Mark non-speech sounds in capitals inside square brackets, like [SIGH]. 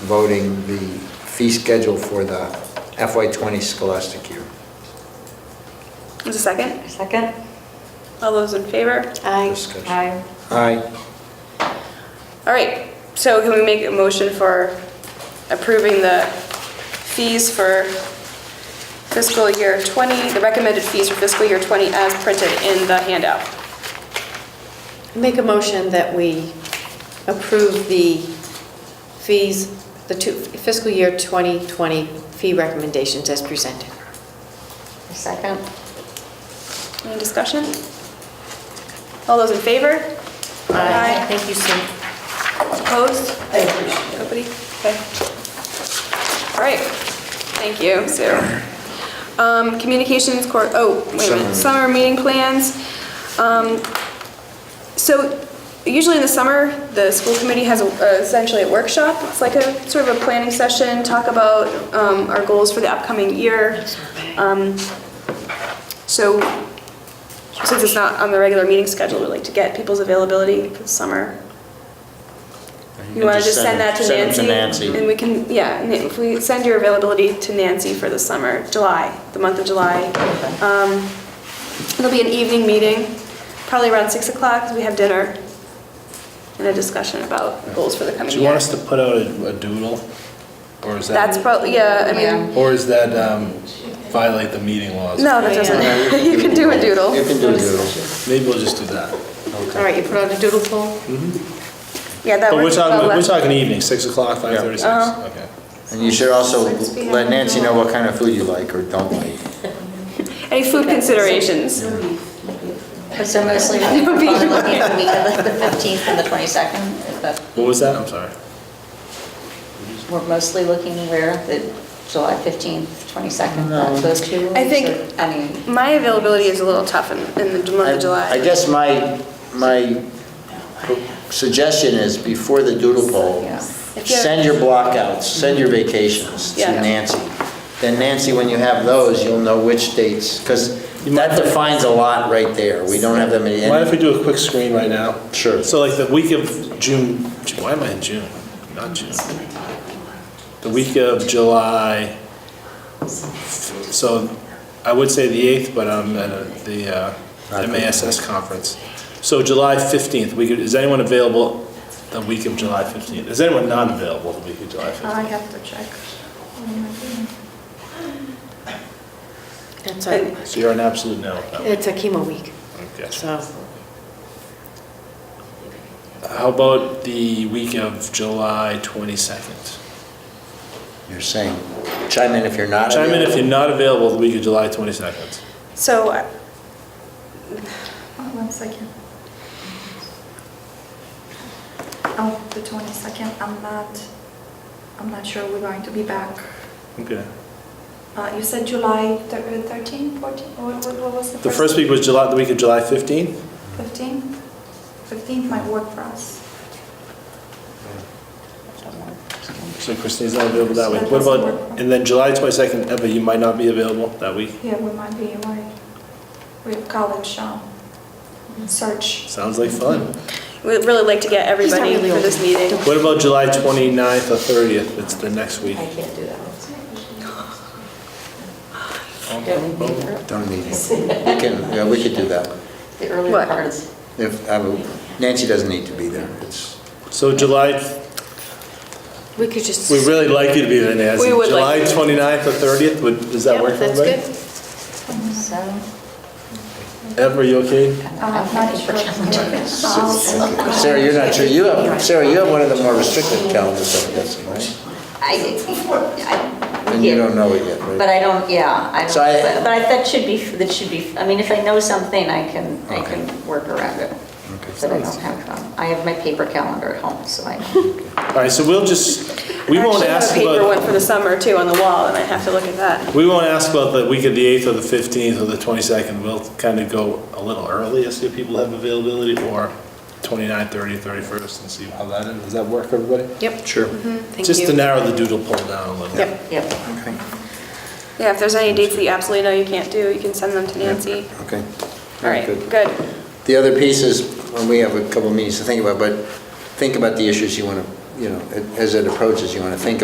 voting the fee schedule for the FY '20 scholastic year. There's a second? Second? All those in favor? Aye. Discussion. Aye. Aye. All right, so can we make a motion for approving the fees for fiscal year 20, the recommended fees for fiscal year 20 as printed in the handout? Make a motion that we approve the fees, the two- fiscal year 2020 fee recommendations as presented. Second? Any discussion? All those in favor? Aye. Thank you, Sue. Opposed? I appreciate it. Nobody? Okay. All right, thank you, Sue. Um, Communications court, oh, wait a minute, Summer summer meeting plans. Um, So usually in the summer, the school committee has a- uh, essentially a workshop. It's like a sort of a planning session, talk about um, our goals for the upcoming year. Um, So since it's not on the regular meeting schedule, we like to get people's availability for the summer. You want to just send that to Nancy? And we can, yeah, and if we send your availability to Nancy for the summer, July, the month of July. Um, It'll be an evening meeting, probably around 6 o'clock, because we have dinner and a discussion about goals for the coming Do you want year. us to put out a a doodle? Or is That's that, probably, yeah, I mean, or is that um, violate the meeting laws? no, that doesn't, [LAUGHS] you can do a You doodle. can do doodles. Maybe we'll just do that. All right, you put on a doodle poll? Mm-hmm. Yeah, that But we're works well. talking, we're left. talking e- evening, 6 o'clock, 5:36? Uh-huh. Okay. And you should also let Nancy know what kind of food you like or don't like. Any food considerations? But so mostly, [LAUGHS] we're probably looking at the week of the 15th and the 22nd, but What was that? I'm sorry. we're mostly looking where, the July 15th, 22nd, not those two I think- weeks, or- I mean, My availability is a little tough in in the month I of July. I guess my, my suggestion is before the doodle poll, Yeah. If you're- send your blockouts, send your vacations to Yeah. Nancy. Then Nancy, when you have those, you'll know which dates, because that defines a lot right there. We don't have that many. Mind if we do a quick screen right now? Sure. So like the week of June, why am I in June? Not June. The week of July, so I would say the 8th, but I'm at a- the uh, MASS conference. So July 15th, we could, is anyone available the week of July 15th? Is anyone not available the week of July uh, 15th? I have to check. Oh That's a, So you're an absolute no. no. it's a chemo week, Okay. so How about the week of July 22nd? You're saying, chime in if you're not. Chime in if you're not available the week of July 22nd. So, uh, Hold on One second. Oh, the 22nd, I'm not, I'm not sure we're going to be back. Okay. Uh, You said July thir- uh, 13, 14, what what- what was the first? The first week was July, the week of July 15th? 15? 15 might work for us. So Christine's not available that week. That What doesn't about, work. and then July 22nd, Eva, you might not be available that week? Yeah, we might be away. We have college um, search. Sounds like fun. we'd really like to get everybody really for this old. meeting. What about July 29th or 30th? It's the next week. I can't do that one. Uh, Boom, boom. Don't need it. We can, yeah, we could do that. the earlier What? part is, If, I would- Nancy doesn't need to be there. It's, So July, we could just. we really like you to be there, Nancy. We would July like you. 29th or 30th, would, does that Yeah, work for that's everybody? good. so, Eva, are you okay? I'm Uh, not Not finished sure. for [LAUGHS] Uh, Sarah, you're not sure, you have, Sarah, you have one of the more restrictive calendars, I'm guessing, right? I, I, And you yeah, don't know it yet, right? but I don't, yeah, I don't, So I- but but I, that should be, that should be, I mean, if I know something, I can, I Okay. can work around it. Okay. But I don't have, um, I have my paper calendar at home, so I [LAUGHS] know. All right, so we'll just, we I won't actually have ask a paper one about, for the summer too on the wall, and I have to look at that. we won't ask about the week of the 8th or the 15th or the 22nd. We'll kind of go a little early and see if people have availability or 29th, 30th, 31st and see how that is. Does that work, everybody? Yep. Sure. Mm-hmm. Thank Just to you. narrow the doodle poll down a little. Yep. Yep. Okay. Yeah, if there's any dates that you absolutely know you can't do, you can send them to Nancy. Okay. All right, Good. good. The other piece is, when we have a couple meetings to think about, but think about the issues you want to, you know, as it approaches, you want to think